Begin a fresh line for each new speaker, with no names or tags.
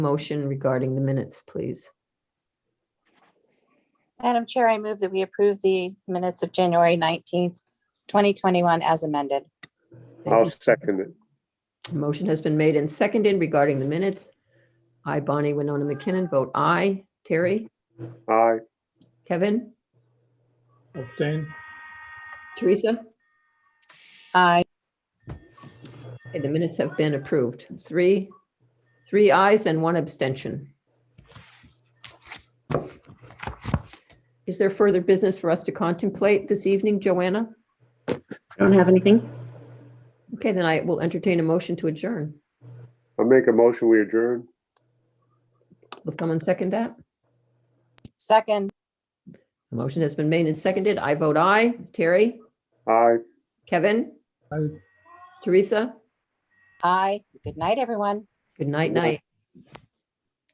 motion regarding the minutes, please?
Madam Chair, I move that we approve the minutes of January 19th, 2021 as amended.
Thank
I'll
you.
second it.
A Motion has been made and seconded regarding the minutes. I, Bonnie Winona McKinnon, vote aye. Terry,
Aye.
Kevin,
abstain,
Teresa?
Aye.
Okay, The minutes have been approved. Three, three ayes and one abstention. Is there further business for us to contemplate this evening, Joanna?
Don't have anything?
Okay, then I will entertain a motion to adjourn.
I'll make a motion, we adjourn.
Will someone second that?
Second,
A motion has been made and seconded. I vote aye. Terry?
Aye.
Kevin?
Aye.
Teresa?
aye. Good night, everyone.
Good night,
Good
night.
night.